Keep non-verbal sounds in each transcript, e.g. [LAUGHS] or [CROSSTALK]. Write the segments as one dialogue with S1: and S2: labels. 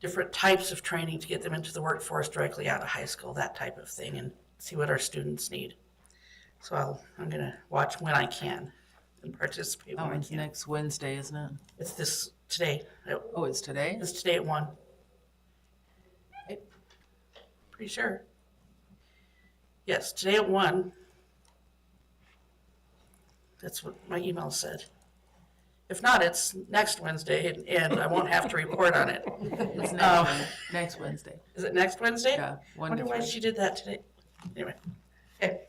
S1: different types of training to get them into the workforce directly out of high school, that type of thing, and see what our students need. So I'll, I'm gonna watch when I can and participate
S2: Oh,
S1: when I
S2: it's
S1: can.
S2: next Wednesday, isn't it?
S1: It's this, today, It-
S2: Oh, it's today?
S1: it's today at one. Pretty sure. Yes, today at one. That's what my email said. If not, it's next Wednesday and- and I won't have to report on
S2: [LAUGHS]
S1: it.
S2: It's
S1: Um,
S2: next, Wed- next Wednesday.
S1: Is it next Wednesday?
S2: Yeah, one
S1: Wonder
S2: to
S1: why
S2: three.
S1: she did that today. Anyway, okay.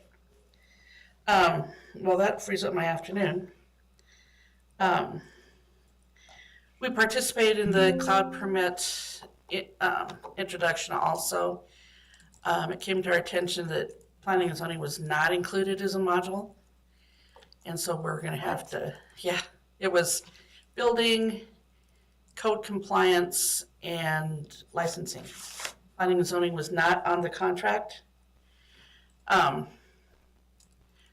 S1: Um, well, that frees up my afternoon. Um, we participated in the cloud permit, i- um, introduction also. Um, it came to our attention that planning and zoning was not included as a module. And so we're gonna have to, yeah, it was building, code compliance, and licensing planning and zoning was not on the contract. Um,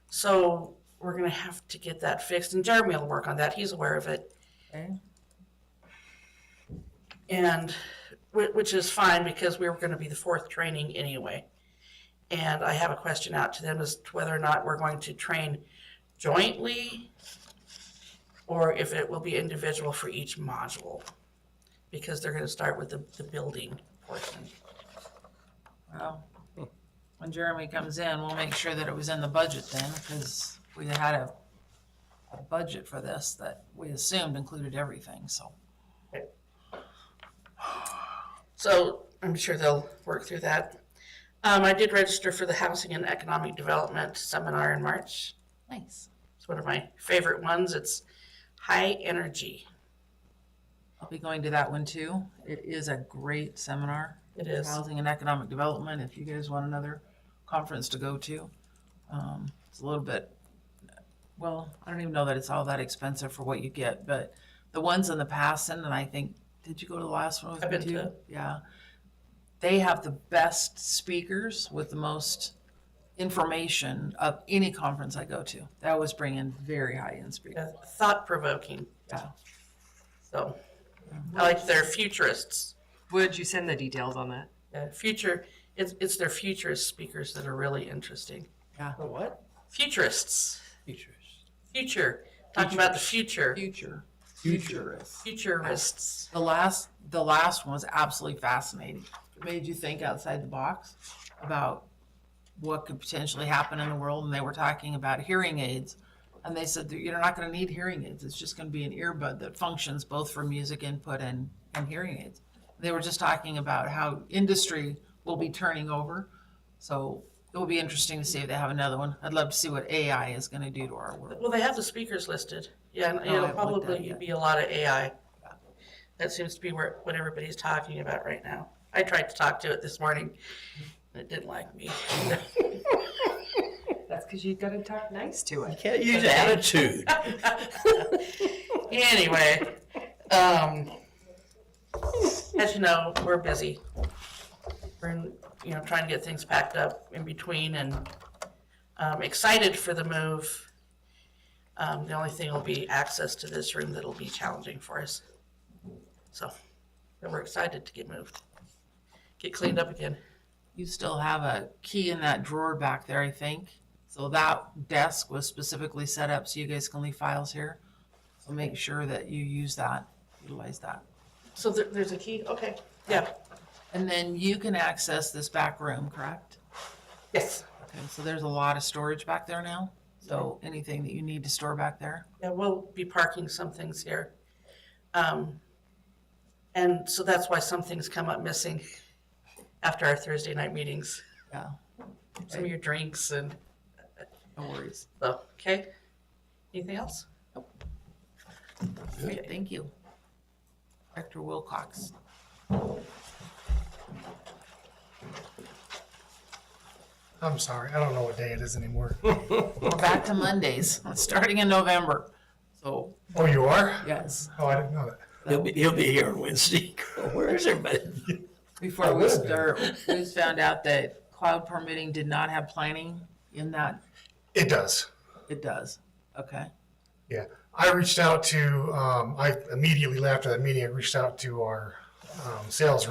S1: so we're gonna have to get that fixed, and Jeremy will work on that, he's aware of it.
S2: Okay.
S1: And, whi- which is fine, because we were gonna be the fourth training anyway. And I have a question out to them as to whether or not we're going to train jointly, or if it will be individual for each module, because they're gonna start with the, the building portion.
S2: Well, When Jeremy comes in, we'll make sure that it was in the budget then, because we had a, a budget for this that we assumed included everything, so.
S1: So I'm sure they'll work through that. Um, I did register for the Housing and Economic Development Seminar in March.
S2: Nice.
S1: It's one of my favorite ones. It's high energy.
S2: I'll be going to that one too. It is a great seminar.
S1: It is.
S2: Housing and Economic Development, if you guys want another conference to go to. Um, It's a little bit, well, I don't even know that it's all that expensive for what you get, but the ones in the past, and then I think, did you go to the last one? with
S1: I've
S2: me
S1: been to
S2: too?
S1: it.
S2: Yeah. They have the best speakers with the most information of any conference I go to. They always bring in very high-end speakers.
S1: Thought provoking.
S2: Yeah.
S1: uh, So I like their futurists.
S3: Would you send the details on that?
S1: Uh, future, it's, it's their futurist speakers that are really interesting.
S4: The what?
S1: Futurists,
S4: Features.
S1: future, talking about the future,
S2: Future. Futurists.
S1: futurists.
S2: The last, the last one was absolutely fascinating. It made you think outside the box about what could potentially happen in the world. And they were talking about hearing aids. And they said that you're not gonna need hearing aids. It's just gonna be an earbud that functions both for music input and, and hearing aids. They were just talking about how industry will be turning over. So it will be interesting to see if they have another one. I'd love to see what AI is gonna do to our world.
S1: Well, they have the speakers listed. Yeah, and
S2: No,
S1: it'll
S2: I haven't looked at it
S1: probably
S2: yet.
S1: be a lot of AI. That seems to be where, what everybody's talking about right now. I tried to talk to it this morning, and it didn't like me. [LAUGHS]
S3: That's because you've got to talk nice to it.
S4: Can't use [LAUGHS] attitude.
S1: Anyway, um, as you know, we're busy. We're, in- you know, trying to get things packed up in between and, um, excited for the move. Um, the only thing will be access to this room that'll be challenging for us. So, but we're excited to get moved, get cleaned up again.
S2: You still have a key in that drawer back there, I think. So that desk was specifically set up so you guys can leave files here. So make sure that you use that, utilize that.
S1: So there, there's a key, okay, yeah,
S2: And then you can access this back room, correct?
S1: yes.
S2: Okay, so there's a lot of storage back there now. So anything that you need to store back there.
S1: Yeah, we'll be parking some things here. Um, and so that's why some things come up missing after our Thursday night meetings,
S2: Yeah,
S1: some of your drinks and,
S2: no worries.
S1: so, okay? Anything else?
S2: Great, Thank you. Director Wilcox.
S5: I'm sorry, I don't know what day it is anymore. [LAUGHS]
S2: We're back to Mondays, [LAUGHS] starting in November. So,
S5: Oh, you are?
S2: yes,
S5: Oh, I didn't know that.
S4: He'll be, he'll be here on Wednesday. Where is everybody?
S2: Before
S5: That
S2: we
S5: would've been-
S2: start, we just found out that cloud permitting did not have planning in that,
S5: It does.
S2: it does, okay?
S5: Yeah, I reached out to, um, I immediately after that meeting, I reached out to our, um, sales